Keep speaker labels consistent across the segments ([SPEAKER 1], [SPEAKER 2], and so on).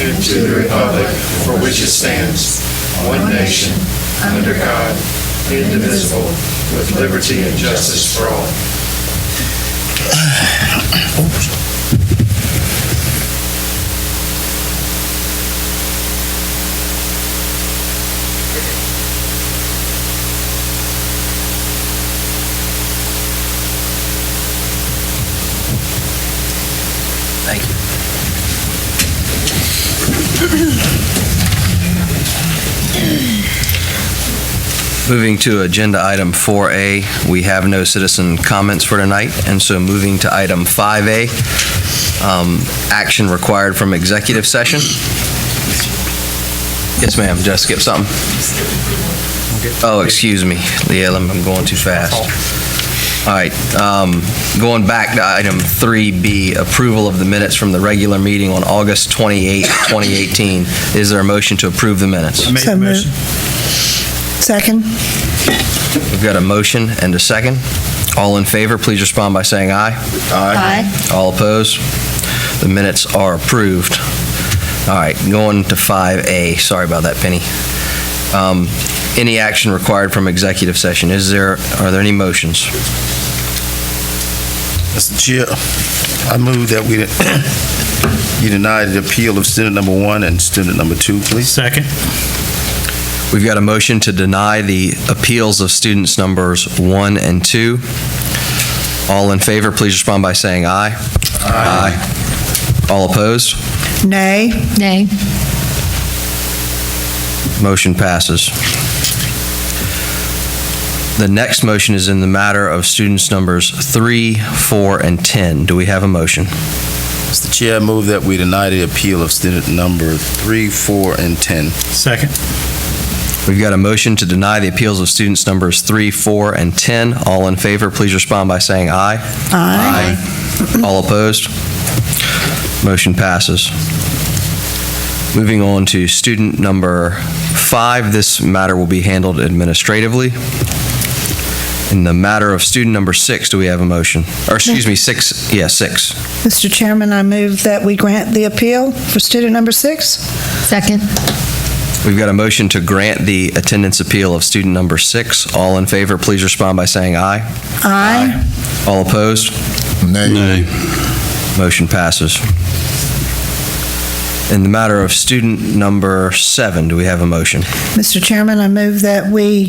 [SPEAKER 1] and to the republic for which it stands, one nation, under God, indivisible, with liberty and justice for all.
[SPEAKER 2] Thank you. Moving to Agenda Item 4A, we have no citizen comments for tonight, and so moving to Item 5A, um, action required from executive session. Yes, ma'am, did I skip something? Oh, excuse me, yeah, I'm I'm going too fast. All right, um, going back to item 3B, approval of the minutes from the regular meeting on August 28, 2018. Is there a motion to approve the minutes?
[SPEAKER 3] Make the
[SPEAKER 4] So moved.
[SPEAKER 3] motion.
[SPEAKER 4] Second.
[SPEAKER 2] We've got a motion and a second. All in favor, please respond by saying aye.
[SPEAKER 4] Aye.
[SPEAKER 2] All opposed? The minutes are approved. All right, going to 5A. Sorry about that, Penny. Um, Any action required from executive session? Is there, are there any motions?
[SPEAKER 3] Mr. Chair, I move that we, you deny the appeal of student number one and student number two, please.
[SPEAKER 5] Second.
[SPEAKER 2] We've got a motion to deny the appeals of students numbers one and two. All in favor, please respond by saying aye. Aye. All opposed?
[SPEAKER 4] Nay.
[SPEAKER 6] Nay.
[SPEAKER 2] Motion passes. The next motion is in the matter of students numbers three, four, and 10. Do we have a motion?
[SPEAKER 3] Mr. Chair, I move that we deny the appeal of student number three, four, and 10.
[SPEAKER 5] Second.
[SPEAKER 2] We've got a motion to deny the appeals of students numbers three, four, and 10. All in favor, please respond by saying aye. Aye. All opposed? Motion passes. Moving on to student number five, this matter will be handled administratively. In the matter of student number six, do we have a motion? Or, excuse me, six, yeah, six.
[SPEAKER 4] Mr. Chairman, I move that we grant the appeal for student number six.
[SPEAKER 6] Second.
[SPEAKER 2] We've got a motion to grant the attendance appeal of student number six. All in favor, please respond by saying aye.
[SPEAKER 4] Aye.
[SPEAKER 2] All opposed?
[SPEAKER 3] Nay.
[SPEAKER 2] Motion passes. In the matter of student number seven, do we have a motion?
[SPEAKER 4] Mr. Chairman, I move that we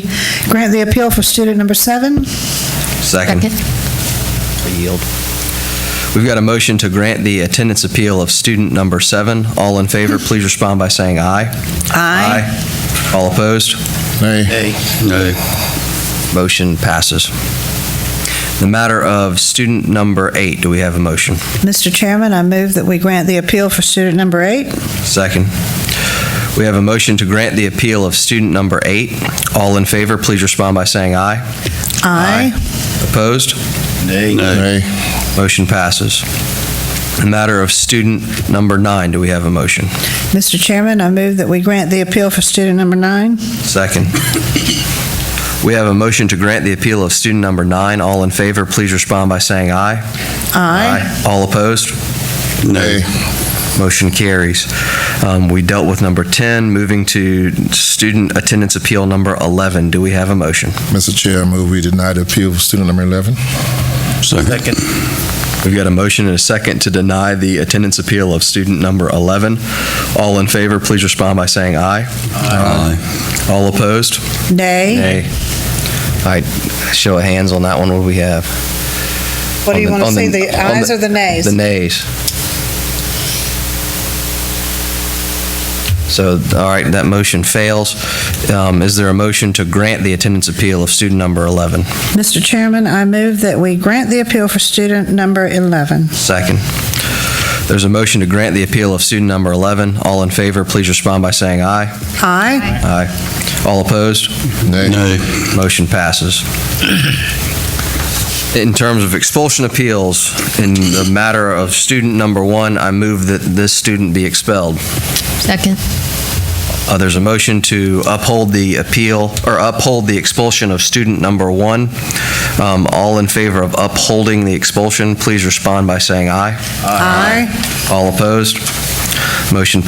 [SPEAKER 4] grant the appeal for student number seven.
[SPEAKER 2] Second. I Yield. We've got a motion to grant the attendance appeal of student number seven. All in favor, please respond by saying aye. Aye. All opposed?
[SPEAKER 3] Nay.
[SPEAKER 2] Motion passes. The matter of student number eight, do we have a motion?
[SPEAKER 4] Mr. Chairman, I move that we grant the appeal for student number eight.
[SPEAKER 2] Second. We have a motion to grant the appeal of student number eight. All in favor, please respond by saying aye.
[SPEAKER 4] Aye.
[SPEAKER 2] Opposed?
[SPEAKER 3] Nay.
[SPEAKER 2] Motion passes. The matter of student number nine, do we have a motion?
[SPEAKER 4] Mr. Chairman, I move that we grant the appeal for student number nine.
[SPEAKER 2] Second. We have a motion to grant the appeal of student number nine. All in favor, please respond by saying aye.
[SPEAKER 4] Aye.
[SPEAKER 2] All opposed?
[SPEAKER 3] Nay.
[SPEAKER 2] Motion carries. Um, We dealt with number 10, moving to student attendance appeal number 11. Do we have a motion?
[SPEAKER 7] Mr. Chair, I move we deny the appeal of student number 11.
[SPEAKER 3] Second.
[SPEAKER 2] We've got a motion and a second to deny the attendance appeal of student number 11. All in favor, please respond by saying aye. Aye. All opposed?
[SPEAKER 4] Nay.
[SPEAKER 2] Nay. All right, show of hands on that one, what do we have?
[SPEAKER 4] What do you
[SPEAKER 2] On
[SPEAKER 4] want to
[SPEAKER 2] on
[SPEAKER 4] see, the
[SPEAKER 2] on
[SPEAKER 4] ayes or the nays?
[SPEAKER 2] The nays. So, all right, that motion fails. Um, Is there a motion to grant the attendance appeal of student number 11?
[SPEAKER 4] Mr. Chairman, I move that we grant the appeal for student number 11.
[SPEAKER 2] Second. There's a motion to grant the appeal of student number 11. All in favor, please respond by saying aye.
[SPEAKER 4] Aye.
[SPEAKER 2] Aye. All opposed?
[SPEAKER 7] Nay.
[SPEAKER 2] Motion passes. In terms of expulsion appeals, in the matter of student number one, I move that this student be expelled.
[SPEAKER 6] Second.
[SPEAKER 2] Uh, There's a motion to uphold the appeal, or uphold the expulsion of student number one. Um, All in favor of upholding the expulsion, please respond by saying aye.
[SPEAKER 4] Aye.
[SPEAKER 2] All opposed? Motion